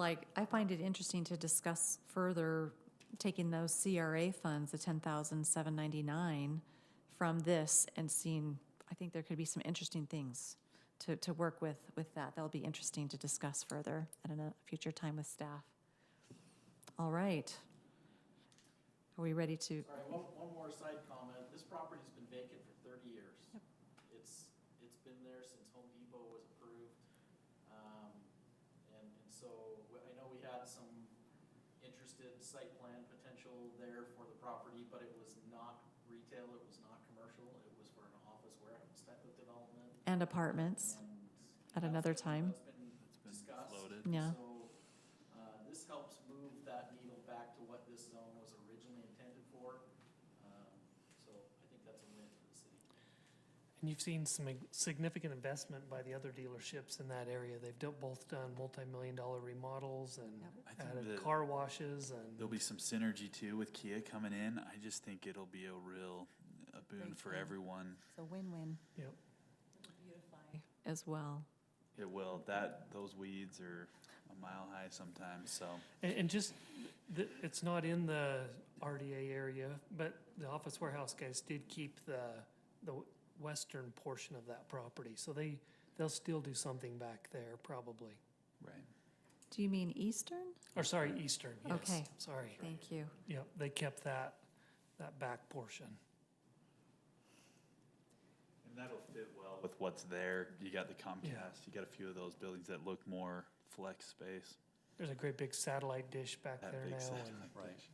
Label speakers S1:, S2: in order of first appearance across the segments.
S1: like, I find it interesting to discuss further taking those CRA funds, the ten thousand seven ninety-nine from this and seeing, I think there could be some interesting things to, to work with, with that. That'll be interesting to discuss further at a future time with staff. All right. Are we ready to,
S2: All right, one, one more side comment. This property's been vacant for thirty years. It's, it's been there since Home Depot was approved. Um, and, and so, w- I know we had some interested site plan potential there for the property, but it was not retail, it was not commercial, it was for an office warehouse type of development.
S1: and apartments?
S2: And
S1: At
S2: that's
S1: another time.
S2: been- That's been discussed.
S3: floated.
S1: Yeah.
S2: So, uh, this helps move that needle back to what this zone was originally intended for. Um, So I think that's a win for the city.
S4: And you've seen some ig- significant investment by the other dealerships in that area. They've do- both done multi-million dollar remodels and
S1: Yep.
S3: I think
S4: added
S3: that
S4: car washes and,
S3: there'll be some synergy too with Kia coming in. I just think it'll be a real a boon
S1: Great
S3: for
S1: thing.
S3: everyone.
S1: It's a win-win.
S4: yep.
S1: As well.
S3: It will. That those weeds are a mile high sometimes. So
S4: And, and just, th it's not in the RDA area, but the office warehouse guys did keep the, the western portion of that property. So they, they'll still do something back there probably.
S3: right.
S1: Do you mean Eastern?
S4: Or sorry, eastern, yes,
S1: Okay.
S4: sorry.
S1: Thank you.
S4: Yep, they kept that, that back portion.
S3: And that'll fit well with what's there. You got the Comcast.
S4: Yeah.
S3: You got a few of those buildings that look more flex space.
S4: There's a great big satellite dish back
S3: That
S4: there
S3: big
S4: now.
S3: satellite
S4: and-
S3: dish.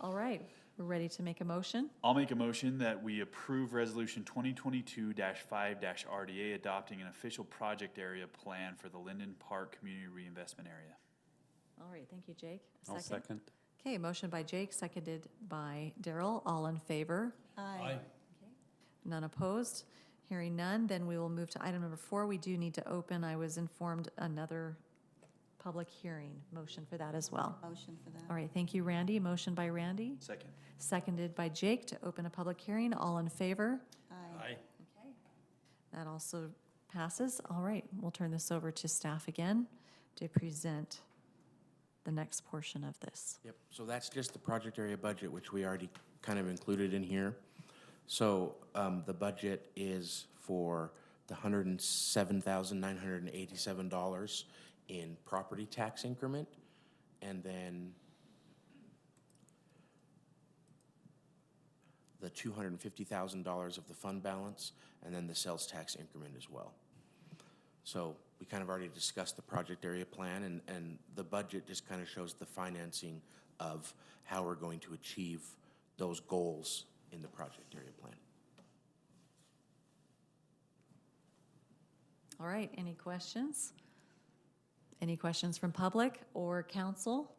S1: All right, we're ready to make a motion?
S3: I'll make a motion that we approve resolution twenty twenty-two five RDA adopting an official project area plan for the Linden Park Community Reinvestment Area.
S1: All right, thank you, Jake. A Okay, motion by Jake, seconded by Daryl. All in favor? Aye. None opposed? Hearing none, then we will move to item number four. We do need to open, I was informed, another public hearing. Motion for that as well.
S5: Motion for that.
S1: All right, thank you, Randy. Motion by Randy,
S3: Second.
S1: seconded by Jake to open a public hearing. All in favor?
S5: Aye.
S1: Okay. That also passes. All right, we'll turn this over to staff again to present the next portion of this.
S6: Yep, so that's just the project area budget, which we already kind of included in here. So um, the budget is for the hundred and seven thousand nine hundred and eighty-seven dollars in property tax increment, and then the two hundred and fifty thousand dollars of the fund balance, and then the sales tax increment as well. So we kind of already discussed the project area plan, and, and the budget just kind of shows the financing of how we're going to achieve those goals in the project area plan.
S1: All right, any questions? Any questions from public or council?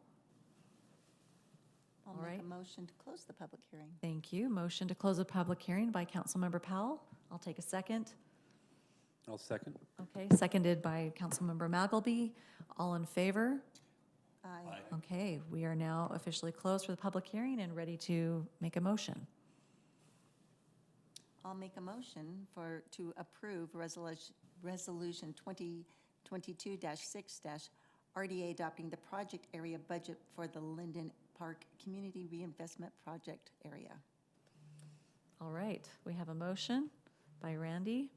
S5: I'll
S1: All
S5: make
S1: right.
S5: a motion to close the public hearing.
S1: Thank you. Motion to close a public hearing by Councilmember Powell. I'll take a second.
S7: I'll second.
S1: Okay, seconded by Councilmember Magalby. All in favor?
S5: Aye.
S1: Okay, we are now officially closed for the public hearing and ready to make a motion.
S5: I'll make a motion for, to approve resolution, resolution 2022-6- RDA adopting the project area budget for the Linden Park Community Reinvestment Project area.
S1: All right, we have a motion by Randy.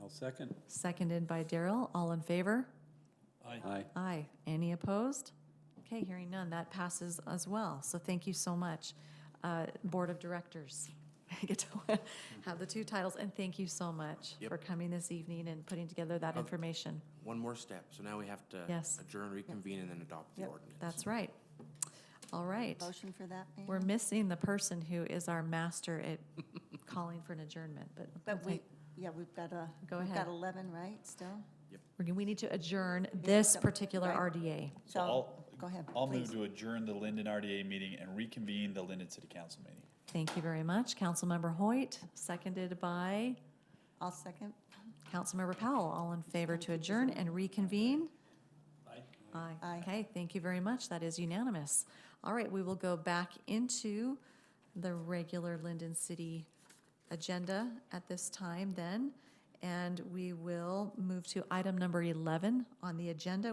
S7: I'll second.
S1: Seconded by Daryl. All in favor?
S7: Aye.
S1: Aye. Any opposed? Okay, hearing none, that passes as well. So thank you so much, uh, Board of Directors. I get to have the two titles, and thank you so much
S6: Yep.
S1: for coming this evening and putting together that information.
S6: One more step, so now we have to
S1: Yes.
S6: adjourn, reconvene, and then adopt the
S5: Yep.
S6: ordinance.
S1: That's right. All right.
S5: Motion for that, ma'am?
S1: We're missing the person who is our master at calling for an adjournment, but
S5: But we, yeah, we've got a,
S1: Go
S5: we've
S1: ahead.
S5: got 11, right, still?
S1: we we need to adjourn this particular
S5: Right.
S1: RDA.
S3: So I'll-
S5: Go ahead,
S3: I'll
S5: please.
S3: move to adjourn the Linden RDA meeting and reconvene the Linden City Council meeting.
S1: Thank you very much. Councilmember Hoyt, seconded by
S5: I'll second.
S1: Councilmember Powell. All in favor to adjourn and reconvene? Aye.
S5: Aye.
S1: Okay, thank you very much. That is unanimous. All right, we will go back into the regular Linden City agenda at this time then. And we will move to item number 11 on the agenda,